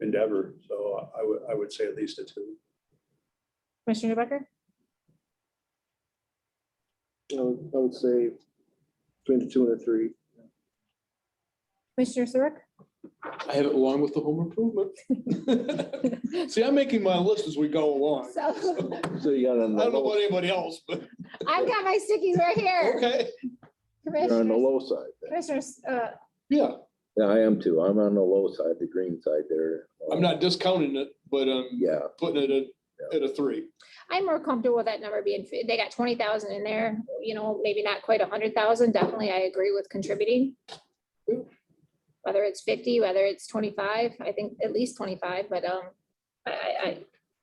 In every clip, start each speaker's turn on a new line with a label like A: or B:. A: endeavor. So I would, I would say at least a two.
B: Commissioner Newbecker?
C: I would I would say between the two and the three.
B: Commissioner Sirik?
D: I have it along with the home improvement. See, I'm making my list as we go along. I
B: So
C: So you got on
D: don't
C: the,
D: know about
C: low-
D: anybody else, but
B: I've got my stickies right here.
D: okay,
C: you're on the
B: Commissioners,
C: low side. then.
B: Commissioners, uh,
D: yeah,
C: Yeah, I am too. I'm on the low side, the green side there. Um,
D: I'm not discounting it, but I'm
C: Yeah,
D: putting it at, at a three.
B: I'm more comfortable with that number being, fi- they got twenty thousand in there, you know, maybe not quite a hundred thousand, definitely I agree with contributing. Whether it's fifty, whether it's twenty-five, I think at least twenty-five, but, um, I, I,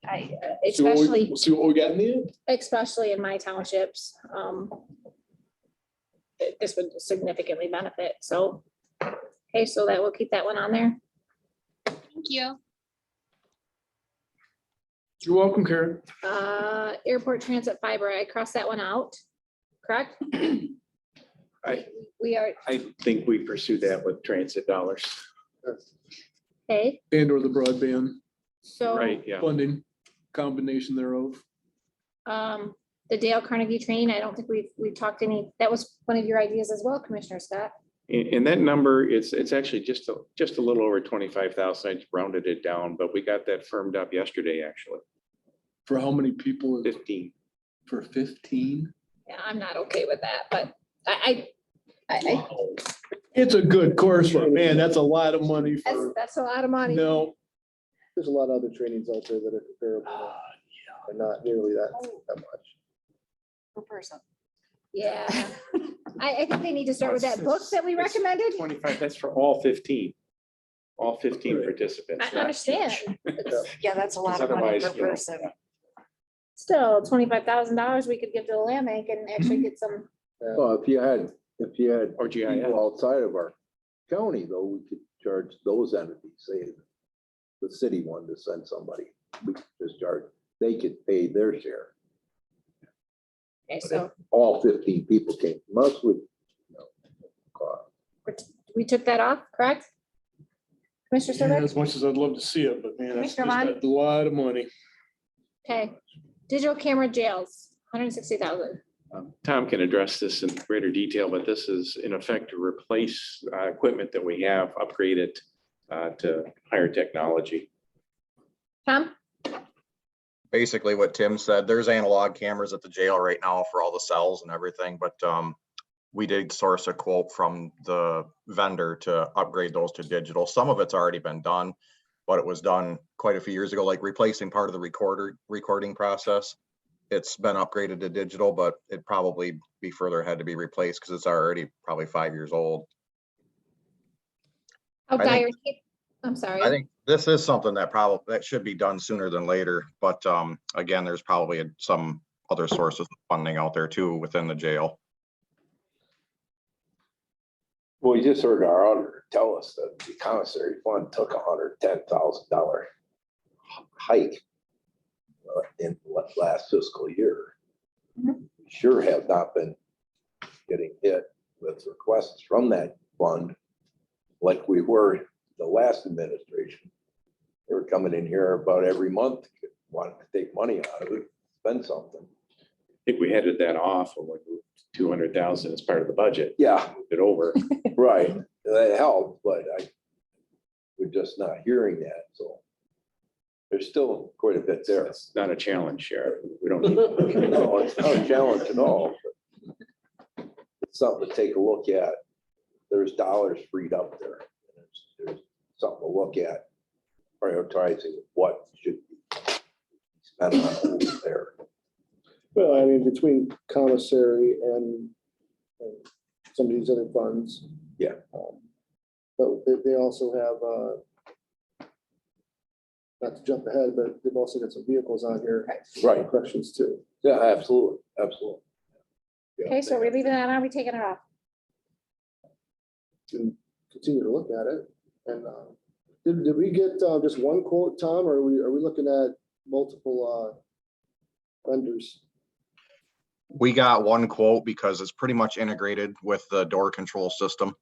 B: I, I, uh,
D: See what we-
B: especially,
D: we'll See what we got in the end.
B: especially in my townships, um. th- This would significantly benefit, so, okay, so that will keep that one on there.
E: Thank you.
D: You're welcome, Karen.
B: Uh, airport transit fiber, I crossed that one out, correct?
F: I-
B: We are,
F: I think we pursue that with transit dollars.
B: okay,
D: And or the broadband
B: so,
F: Right, yeah.
D: funding combination thereof.
B: um, the Dale Carnegie train, I don't think we've, we've talked any, that was one of your ideas as well, Commissioner Scott.
F: And, and that number, it's, it's actually just, a just a little over twenty-five thousand. I just rounded it down, but we got that firmed up yesterday, actually,
D: For how many people?
F: fifteen.
D: For fifteen?
B: Yeah, I'm not okay with that, but I, I, I, I-
D: It's a good course, but man, that's a lot of money
B: that's,
D: for,
B: that's a lot of money.
D: no.
C: there's a lot of other trainings out there that are comparable,
D: Ah,
C: but not nearly that, that much.
E: Per person.
B: Yeah. I, I think they need to start with that book that we
F: It's- it's
B: recommended.
F: Twenty-five, that's for all fifteen, all fifteen participants.
B: I understand.
E: Yeah, that's a lot of money
F: Otherwise,
E: per
F: you know,
E: person.
B: Still, twenty-five thousand dollars we could give to the land bank and actually get some
C: Well, if you had, if you had
F: Or GIS.
C: people outside of our county, though, we could charge those entities, say the city wanted to send somebody, we could just charge, they could pay their share.
B: Okay, so
C: All fifteen people came from us would, you know, cost.
B: we took that off, correct? Commissioner
D: Yeah,
B: Sirdike?
D: As much as I'd love to see it, but man, that's
B: Commissioner
D: just
B: Vaughn?
D: a lot of money.
B: Okay. Digital camera jails, hundred and sixty thousand.
F: Um, Tom can address this in greater detail, but this is in effect to replace uh, equipment that we have, upgrade it uh, to higher technology.
B: Tom?
G: basically what Tim said, there's analog cameras at the jail right now for all the cells and everything, but um, we did source a quote from the vendor to upgrade those to digital. Some of it's already been done, but it was done quite a few years ago, like replacing part of the recorder, recording process. It's been upgraded to digital, but it probably be further ahead to be replaced because it's already probably five years old.
B: How
G: I think-
B: dire, I'm sorry.
G: I think this is something that probably, that should be done sooner than later, but um, again, there's probably a- some other sources of funding out there too within the jail.
C: Well, you just heard our auditor tell us that the commissary fund took a hundred ten thousand dollar hike uh, in la- last fiscal year.
B: Mhm.
C: Sure have not been getting hit with requests from that fund like we were the last administration. They were coming in here about every month, wanting to take money out of it, spend something.
F: I think we headed that off when we moved two hundred thousand as part of the budget,
C: Yeah,
F: moved it over.
C: Right, that helped, but I, we're just not hearing that, so. There's still quite a bit there.
F: It's not a challenge, Sheriff. We don't need.
C: No, it's not a challenge at all. but It's something to take a look at. There's dollars freed up there. There's- There's something to look at, prioritizing what should be spent on who's there.
H: Well, I mean, between commissary and and some of these other funds.
C: Yeah.
H: um, But they, they also have, uh, not to jump ahead, but they've also got some vehicles on here.
C: Right,
H: Corrections too.
C: yeah, absolutely, absolutely. Yeah.
B: Okay, so are we leaving that on? Are we taking it off?
H: and continue to look at it. And uh, did, did we get uh, just one quote, Tom, or are we, are we looking at multiple uh, vendors?
G: We got one quote because it's pretty much integrated with the door control system.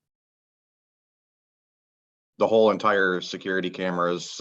G: The whole entire security cameras